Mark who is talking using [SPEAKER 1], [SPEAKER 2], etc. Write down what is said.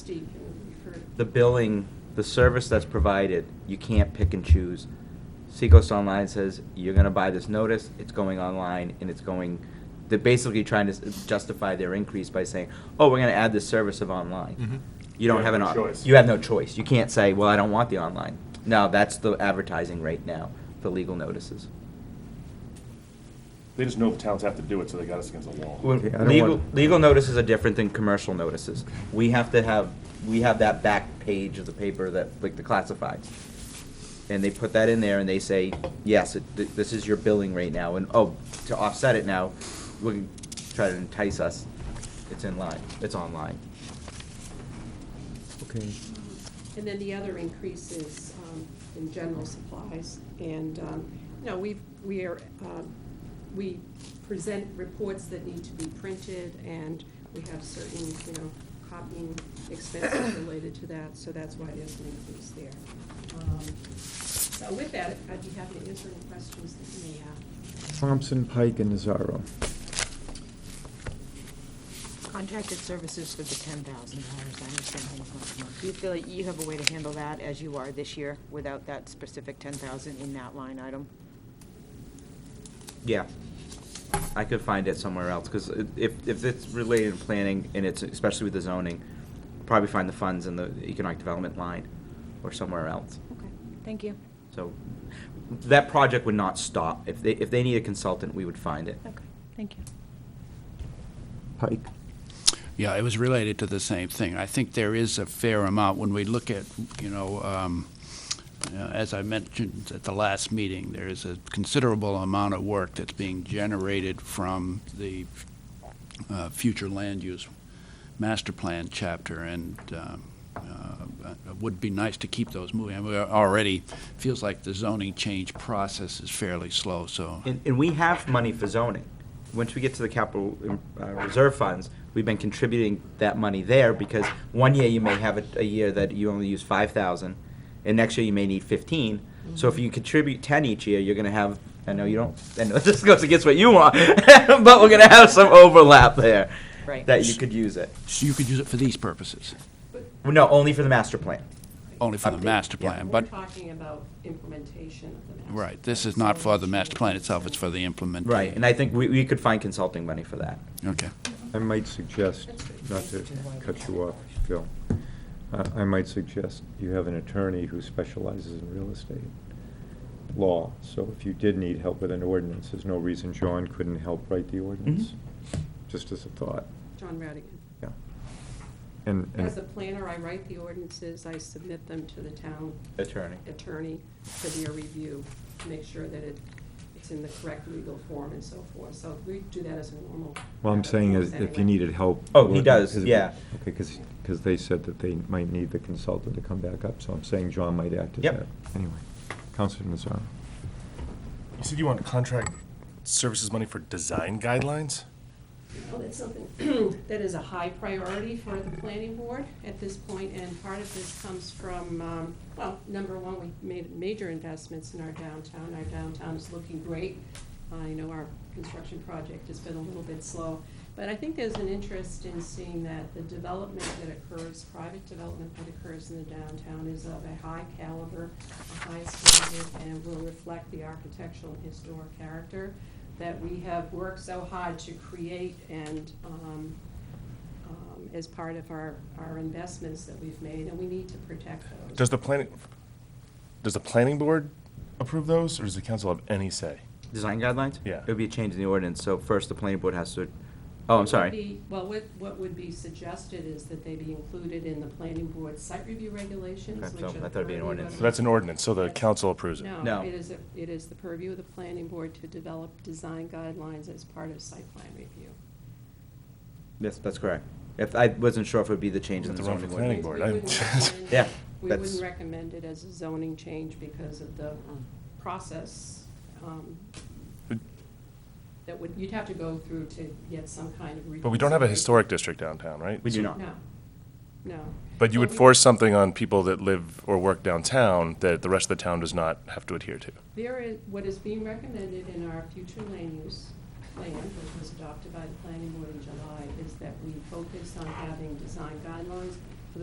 [SPEAKER 1] Steve can refer.
[SPEAKER 2] the billing, the service that's provided, you can't pick and choose. Seacoast Online says, you're gonna buy this notice, it's going online, and it's going, they're basically trying to s- justify their increase by saying, oh, we're gonna add this service of online. Mm-hmm. You don't have an, op-
[SPEAKER 3] choice.
[SPEAKER 2] you have no choice. You can't say, well, I don't want the online. No, that's the advertising rate now for legal notices.
[SPEAKER 3] They just know the towns have to do it, so they got us against the wall.
[SPEAKER 2] Well,
[SPEAKER 4] Yeah, I don't
[SPEAKER 2] Legal,
[SPEAKER 4] want-
[SPEAKER 2] legal notices are different than commercial notices. We have to have, we have that back page of the paper that, like the classifieds. And they put that in there and they say, yes, it- th- this is your billing rate now, and, oh, to offset it now, we can try to entice us. It's in line, it's online.
[SPEAKER 4] Okay.
[SPEAKER 1] And then the other increase is um, in general supplies. And, um, no, we, we are, um, we present reports that need to be printed, and we have certain, you know, copying expenses related to that, so that's why there's an increase there. Um, So with that, I'd be happy to answer any questions that you may have.
[SPEAKER 4] Thompson, Pike, and Nazaro.
[SPEAKER 5] Contracted services for the ten thousand dollars, I understand things month to month. Do you feel like you have a way to handle that as you are this year without that specific ten thousand in that line item?
[SPEAKER 2] Yeah. I could find it somewhere else, because if, if it's related to planning, and it's, especially with the zoning, probably find the funds in the economic development line, or somewhere else.
[SPEAKER 5] Okay, thank you.
[SPEAKER 2] So that project would not stop. If they, if they need a consultant, we would find it.
[SPEAKER 5] Okay, thank you.
[SPEAKER 4] Pike.
[SPEAKER 6] Yeah, it was related to the same thing. I think there is a fair amount when we look at, you know, um, you know, as I mentioned at the last meeting, there is a considerable amount of work that's being generated from the uh, future land use master plan chapter, and um, uh, it would be nice to keep those moving. And we are already, feels like the zoning change process is fairly slow, so.
[SPEAKER 2] And, and we have money for zoning. Once we get to the capital uh, reserve funds, we've been contributing that money there because one year you may have a, a year that you only use five thousand, and next year you may need fifteen. So if you contribute ten each year, you're gonna have, I know you don't, I know this goes against what you want, but we're gonna have some overlap there.
[SPEAKER 5] Right.
[SPEAKER 2] That you could use it.
[SPEAKER 6] So you could use it for these purposes,
[SPEAKER 2] No, only for the master plan.
[SPEAKER 6] only for the
[SPEAKER 2] Update,
[SPEAKER 6] master
[SPEAKER 2] yeah.
[SPEAKER 6] plan,
[SPEAKER 1] We're
[SPEAKER 6] but.
[SPEAKER 1] talking about implementation of the master.
[SPEAKER 6] Right, this is not for the master plan itself, it's for the implementation.
[SPEAKER 2] Right, and I think we, we could find consulting money for that.
[SPEAKER 6] Okay.
[SPEAKER 4] I might suggest, not to cut you off, Phil, Uh, I might suggest you have an attorney who specializes in real estate law. So if you did need help with an ordinance, there's no reason John couldn't help write the ordinance. Just as a thought,
[SPEAKER 1] John Radigan.
[SPEAKER 4] yeah. And, and-
[SPEAKER 1] As a planner, I write the ordinances, I submit them to the town
[SPEAKER 2] Attorney.
[SPEAKER 1] attorney for their review, to make sure that it, it's in the correct legal form and so forth. So we do that as a normal.
[SPEAKER 4] well, I'm saying is if you needed help.
[SPEAKER 2] Oh, he does,
[SPEAKER 4] because-
[SPEAKER 2] yeah.
[SPEAKER 4] Okay, because, they said that they might need the consultant to come back up, so I'm saying John might act as
[SPEAKER 2] Yep.
[SPEAKER 4] that. Anyway, Counselor Nazaro.
[SPEAKER 3] You said you want contract services money for design guidelines?
[SPEAKER 1] Well, it's something that is a high priority for the planning board at this point, and part of this comes from, um, well, number one, we made major investments in our downtown. Our downtown is looking great. I know our construction project has been a little bit slow, but I think there's an interest in seeing that the development that occurs, private development that occurs in the downtown is of a high caliber, a high standard, and will reflect the architectural and historic character that we have worked so hard to create and um, um, as part of our, our investments that we've made, and we need to protect those.
[SPEAKER 3] Does the planning, does the planning board approve those, or does the council have any say?
[SPEAKER 2] Design guidelines?
[SPEAKER 3] Yeah.
[SPEAKER 2] It would be a change in the ordinance, so first the planning board has to, oh, I'm
[SPEAKER 1] Would
[SPEAKER 2] sorry.
[SPEAKER 1] be- Well, what, what would be suggested is that they be included in the planning board site review regulations,
[SPEAKER 2] Okay,
[SPEAKER 1] which
[SPEAKER 2] so
[SPEAKER 1] are the
[SPEAKER 2] I thought it'd be an
[SPEAKER 1] purview of
[SPEAKER 2] ordinance.
[SPEAKER 1] the-
[SPEAKER 3] So that's an ordinance, so the council approves it?
[SPEAKER 2] No.
[SPEAKER 1] No, it is, a- it is the purview of the planning board to develop design guidelines as part of site plan review.
[SPEAKER 2] Yes, that's correct. If, I wasn't sure if it would be the change in
[SPEAKER 3] Have
[SPEAKER 2] the
[SPEAKER 3] to run for
[SPEAKER 2] zoning
[SPEAKER 3] planning
[SPEAKER 2] ordinance.
[SPEAKER 3] board,
[SPEAKER 1] We wouldn't
[SPEAKER 3] I-
[SPEAKER 1] recommend-
[SPEAKER 2] Yeah,
[SPEAKER 1] We
[SPEAKER 2] that's-
[SPEAKER 1] wouldn't recommend it as a zoning change because of the process um, that would, you'd have to go through to get some kind of.
[SPEAKER 3] But we don't have a
[SPEAKER 1] reconsideration.
[SPEAKER 3] historic district downtown, right?
[SPEAKER 2] We do
[SPEAKER 3] So-
[SPEAKER 2] not.
[SPEAKER 1] No, no.
[SPEAKER 3] But you would
[SPEAKER 1] we-
[SPEAKER 3] force something on people that live or work downtown that the rest of the town does not have to adhere to.
[SPEAKER 1] There is, what is being recommended in our future land use plan, which was adopted by the planning board in July, is that we focus on having design guidelines